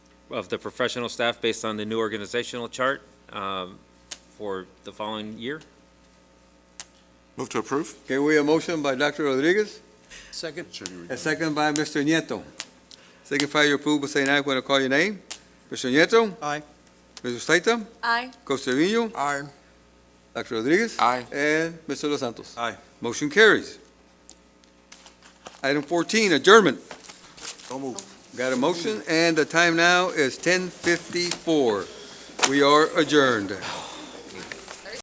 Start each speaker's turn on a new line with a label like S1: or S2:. S1: of the professional staff based on the new organizational chart um, for the following year.
S2: Move to approve?
S3: Okay, we have a motion by Dr. Rodriguez,
S4: Second.
S3: a second by Mr. Nieto. Signify your approval by saying aye when I call your name. Mr. Nieto?
S4: Aye.
S3: Mr. Saita?
S5: Aye.
S3: Costeño?
S4: Aye.
S3: Dr. Rodriguez?
S2: Aye.
S3: And Mr. Los Santos?
S4: Aye.
S3: Motion carries. Item 14, adjournment.
S2: So move.
S3: Got a motion, and the time now is 10:54. We are adjourned.